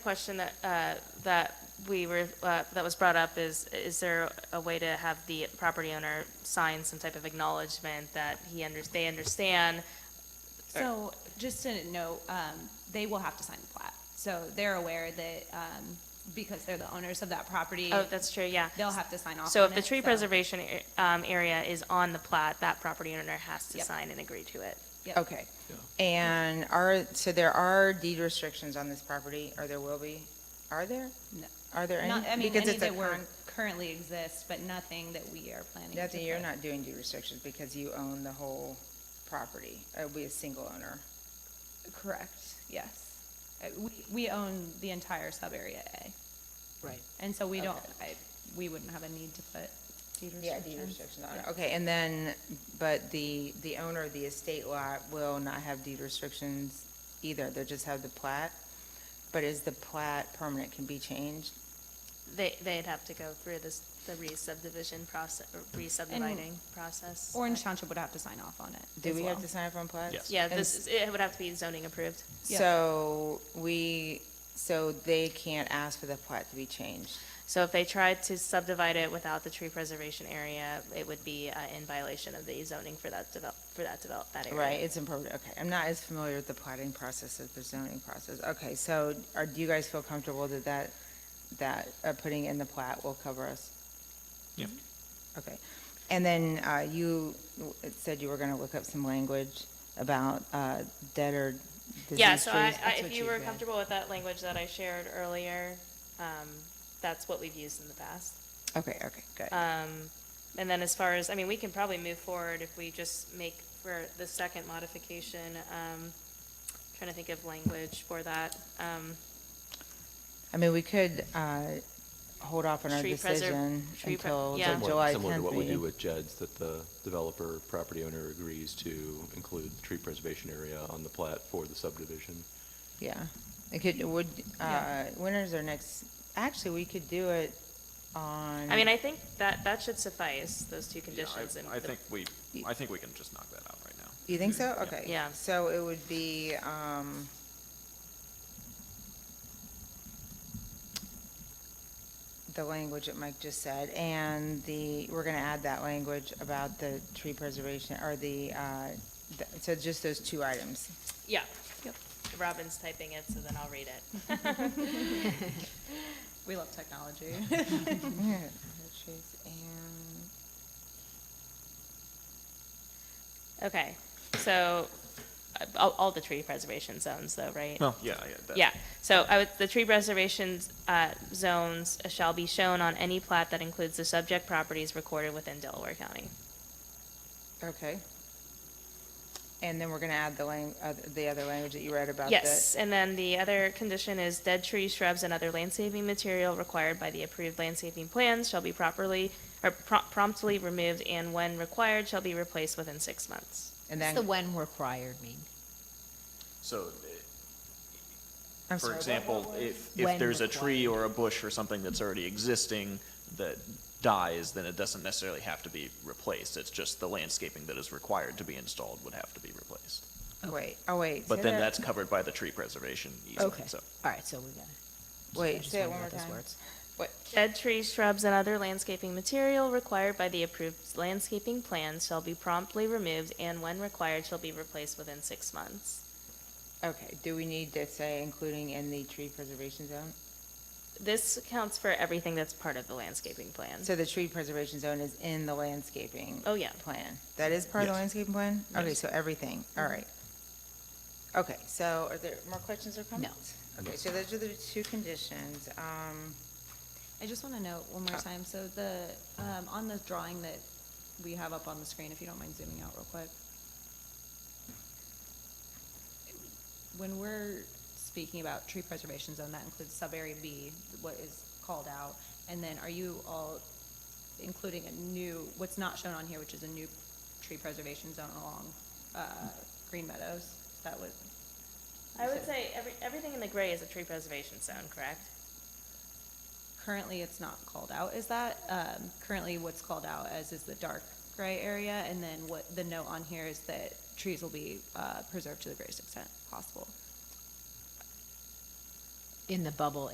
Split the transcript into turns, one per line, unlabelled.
question that, uh, that we were, uh, that was brought up is, is there a way to have the property owner sign some type of acknowledgement that he under, they understand?
So, just to note, um, they will have to sign the plat. So they're aware that, um, because they're the owners of that property,
Oh, that's true, yeah.
they'll have to sign off
So
on
if the
it,
tree
so-
preservation, a- um, area is on the plat, that property owner has to
Yep.
sign and agree to it.
Yep.
Okay. And are, so there are deed restrictions on this property, or there will be? Are there?
No.
Are there any?
Not, I mean,
Because
any
it's a
that were
con-
currently exist, but nothing that we are planning to.
Nothing, you're
put.
not doing deed restrictions because you own the whole property. It'll be a single owner.
Correct, yes. Uh, We, we own the entire sub-area A,
Right.
and so we don't,
Okay.
I, we wouldn't have a need to put deed restrictions.
Yeah, deed restrictions on it. Okay, and then, but the, the owner of the estate lot will not have deed restrictions either. They'll just have the plat. But is the plat permanent can be changed?
They, they'd have to go through this, the re-subdivision process, re-subdividing process.
Orange Township would have to sign off on it
Do
as
we have
well.
to sign up on plats?
Yes.
Yeah,
And
this, is- it would have to be zoning approved.
Yeah.
So we, so they can't ask for the plat to be changed.
So if they tried to subdivide it without the tree preservation area, it would be uh, in violation of the zoning for that develop, for that develop, that area.
Right, it's important, okay. I'm not as familiar with the plotting process as the zoning process. Okay, so are, do you guys feel comfortable that that, that uh, putting in the plat will cover us?
Yeah.
Okay. And then uh, you w- said you were going to look up some language about uh, dead or diseased trees.
Yeah, so I, I,
That's what
if you were
read.
comfortable with that language that I shared earlier, um, that's what we've used in the past.
Okay, okay, good.
Um, and then as far as, I mean, we can probably move forward if we just make for the second modification, um, trying to think of language for that. Um,
I mean, we could uh, hold off on our
Tree preser-
decision
tree pre-
until
yeah.
the
Somewhat-
July 10th
Similar to what we do
meeting.
with JEDs, that the developer, property owner agrees to include tree preservation area on the plat for the subdivision.
Yeah, it could, would, uh,
Yeah.
when is our next, actually, we could do it on.
I mean, I think that, that should suffice, those two
Yeah,
conditions. and
I, I
the-
think we,
Y-
I think we can just knock that out right now.
You think so?
Yeah.
Okay.
Yeah.
So it would be, um, the language that Mike just said, and the, we're gonna add that language about the tree preservation, or the, uh, th- so just those two items.
Yeah.
Yep.
Robin's typing it, so then I'll read it.
We love technology.
Yeah, the trees and-
Okay, so, uh, all, all the tree preservation zones though, right?
Well, yeah, yeah. that-
Yeah, so I would, the tree preservation, uh, zones shall be shown on any plat that includes the subject properties recorded within Delaware County.
Okay. And then we're gonna add the lang, uh, the other language that you read about the.
Yes, and then the other condition is dead trees, shrubs, and other landscaping material required by the approved landscaping plans shall be properly, or prom- promptly removed, and when required, shall be replaced within six months.
And
What's the
then,
when required mean?
So, uh,
I'm
for
sorry,
example, if, if
When
there's a tree or a bush or something that's already existing that dies, then it doesn't necessarily have to be replaced. It's just the landscaping that is required to be installed would have to be replaced.
wait, oh, wait.
But
say
then
that-
that's covered by the tree preservation
Okay,
easement, so.
all right, so we gotta. I
Wait,
just
say it
wondered
one more
about those
time.
words.
Dead trees, shrubs, and other landscaping material required by the approved landscaping plans shall be promptly removed, and when required, shall be replaced within six months.
Okay, do we need to say including in the tree preservation zone?
This counts for everything that's part of the landscaping plan.
So the tree preservation zone is in the landscaping.
Oh, yeah.
Plan. That is part of the
Yes.
landscaping plan? Okay,
Yes.
so everything, all right. Okay, so are there more questions or comments? Okay, so those are the two conditions. Um,
I just want to note one more
Uh.
time, so the, um, on the drawing that we have up on the screen, if you don't mind zooming out real quick. When we're speaking about tree preservation zone, that includes sub-area B, what is called out, and then are you all including a new, what's not shown on here, which is a new tree preservation zone along, uh, Green Meadows? Is that what?
I would say every, everything in the gray is a tree preservation zone, correct?
Currently, it's not called out as that. Um, Currently, what's called out as is the dark gray area, and then what, the note on here is that trees will be uh, preserved to the greatest extent possible.
in the bubble